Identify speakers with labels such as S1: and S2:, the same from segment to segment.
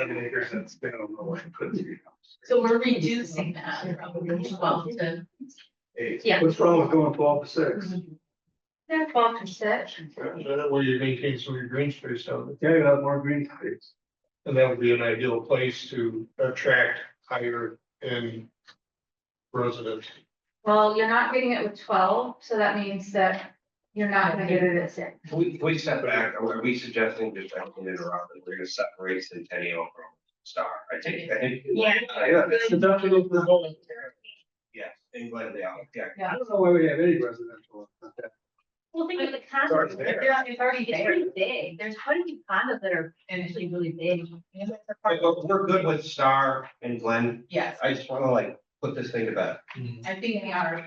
S1: seven acres and spin it over the way and put it through.
S2: So we're reducing that from twelve to.
S1: Eight.
S2: Yeah.
S1: What's wrong with going twelve to six?
S3: Yeah, twelve to six.
S4: That way you maintain some of your green space out there.
S1: Yeah, you have more green space.
S4: And that would be an ideal place to attract higher end residents.
S3: Well, you're not getting it with twelve, so that means that you're not gonna get it at six.
S5: Can we, can we step back, are we suggesting just, I can interrupt, that we're gonna separate Centennial from Star, I take that.
S2: Yeah.
S1: Yeah, it's the dumping of the whole.
S5: Yes, and let it out, yeah.
S1: I don't know why we have any residential. up there.
S6: Well, think of the
S5: already
S6: condos,
S5: there.
S6: they're, it's already, it's
S2: there.
S6: pretty big, there's quite a few condos that are actually really big.
S5: But look, We're good with Star and Glenn,
S2: Yes,
S5: I just wanna like put this thing to bed.
S2: I think we are.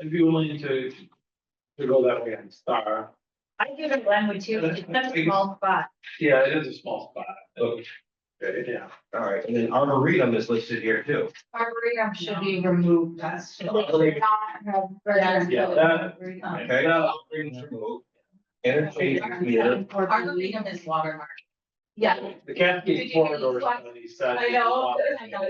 S4: I'd be willing to, to go that way on Star.
S6: I give it Glenwood too, it's such a small spot.
S4: Yeah, it is a small spot.
S5: Okay,
S4: Yeah.
S5: all right, and then Arboretum is listed here too.
S3: Arboretum should
S2: Should
S3: be.
S2: be removed, that's.
S3: they should not have residential
S4: Yeah, that-
S3: arboretum.
S2: Um,
S5: Okay, Arboretum's removed. Interchange community,
S2: Arboretum is watermark.
S6: Yeah.
S4: The Cascade corridor is on the east side.
S3: I know,
S2: I know.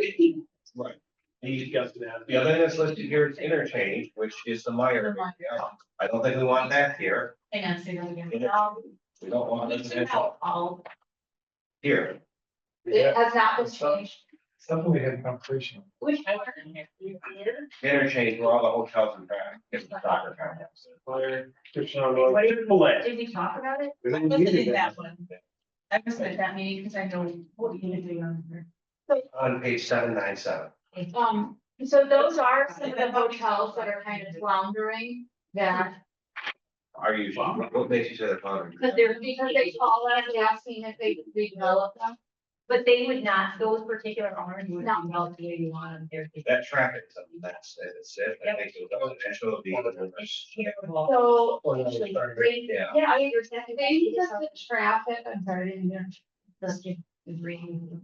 S4: He's got to have.
S5: the other thing that's listed here is interchange, which is the Meyer. Yeah, I don't think we want that here,
S2: Hang on, say that again.
S5: we don't want
S2: We took
S5: residential
S2: out all,
S5: here,
S3: It has not been changed.
S4: Something we had a conversation.
S6: Which one?
S5: interchange where all the hotels and back, it's the soccer complex.
S4: Fire,
S6: What do you-
S4: Triple A.
S6: Did we talk about it?
S1: We
S2: I
S1: don't
S2: wasn't
S1: need
S2: in
S1: it.
S2: that one. I was at that meeting because I know what you're doing on there.
S5: On page seven nine seven.
S3: Um, so those are some of the hotels that are kind of floundering that,
S5: Are you, what makes you say they're pondering?
S6: Cause
S3: they're
S6: they're,
S3: because they call us, they ask me if they could redevelop them.
S6: but they would not, those particular owners would
S3: No.
S6: not develop the way you want them there.
S5: That traffic, is something that's, that's it, I think it was residential, the.
S6: It's terrible.
S3: So
S4: Or another
S6: Actually,
S4: starter.
S6: great.
S5: Yeah.
S6: Yeah, I understand.
S3: maybe just the traffic, I'm sorry, I didn't hear.
S6: Just get the green.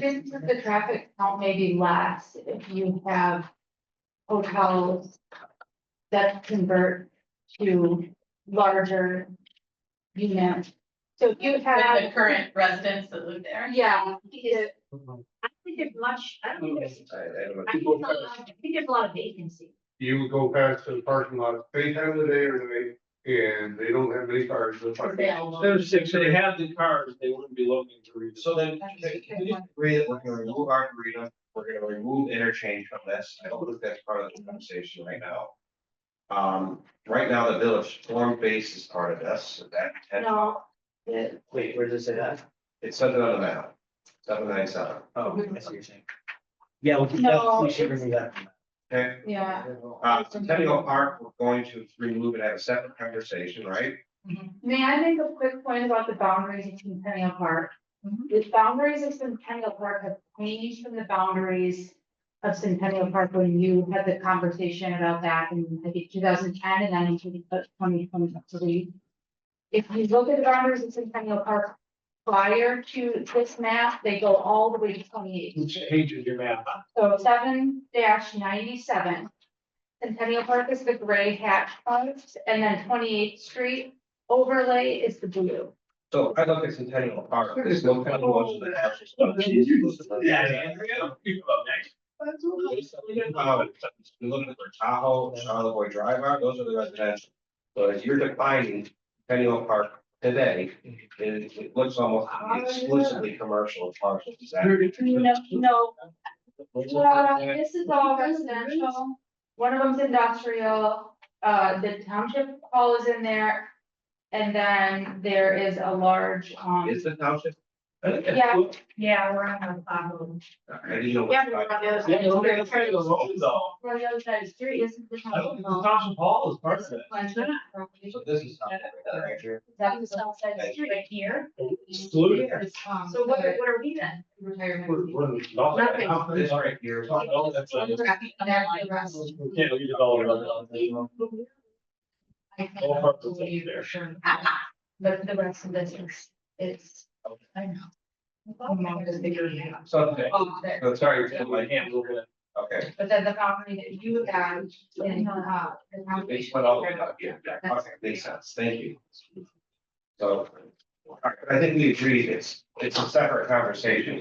S3: Just that the traffic count maybe less if you have hotels that convert to larger units. So if you
S2: With the
S3: have,
S2: current residents that live there.
S3: yeah, it-
S6: I don't think there's much, I don't think there's,
S5: I, I don't know.
S6: I think there's a lot- I think there's a lot of vacancy.
S4: You would go past the parking lot any time of the day or the night, and they don't have any cars.
S2: There's
S4: six, they have the cars, they wouldn't be looking to read.
S5: So then, can we just agree that we're gonna remove Arboretum, we're gonna remove interchange from this, I don't think that's part of the conversation right now. Um, right now, the village form base is part of this, so that, and
S3: no, it-
S7: Wait, where does it say that?
S5: it's something on the map, seven nine seven,
S7: Oh, I see what you're saying. Yeah, we can,
S3: No,
S7: we should
S3: it's-
S7: remove that. from that.
S5: okay?
S3: yeah.
S5: Uh, Centennial Park, we're going to remove and have a separate conversation, right?
S3: May I make a quick point about the boundaries of Centennial Park?
S2: Mhm.
S3: The boundaries of Centennial Park have changed from the boundaries of Centennial Park when you had the conversation about that in, I think, two thousand ten and then in twenty twenty three. If you look at the boundaries of Centennial Park prior to this map, they go all the way to twenty eight.
S4: Which page is your map on?
S3: So seven ninety-seven. Centennial Park is the gray hatch points, and then twenty-eighth Street overlay is the blue.
S5: So if I look at Centennial Park, there's no kind of ones that have- Um, You're looking for Tahoe, Charlevoix Drive, are- those are the residential. So as you're defining Centennial Park today, it, it looks almost exclusively commercial as far as it's at.
S3: No, no, uh, this is all residential, one of them's industrial, uh, the township hall is in there. And then there is a large, um,
S5: Is the township?
S3: yeah,
S6: Yeah, we're on the problem.
S5: I didn't know.
S3: yeah,
S5: what-
S3: we're on the other
S4: Yeah,
S3: side.
S4: look at the kind of road though.
S3: We're on the other side of the street, isn't the
S4: I don't
S3: township
S4: think the
S3: hall?
S4: Thompson Hall is part of it.
S5: So this is. Right here.
S3: That's the south side of the street.
S6: Right here,
S4: Excluded.
S3: um,
S6: so what, are- what are we then?
S2: Retirement.
S4: We're- we're not-
S5: This right here. Oh,
S4: Not all that's on this. We can't leave it all around. All parts of it there.
S2: But the rest of this is, it's, I know. I'm not just figuring it out.
S5: Something.
S2: Oh, there.
S5: So sorry,
S4: Yeah, my hand a little bit.
S5: okay.
S3: But then the property that you got in, uh, the
S5: They
S3: foundation.
S5: put all the way up, yeah, that makes sense, thank you. So, All right, but I think we agreed, it's, it's a separate conversation.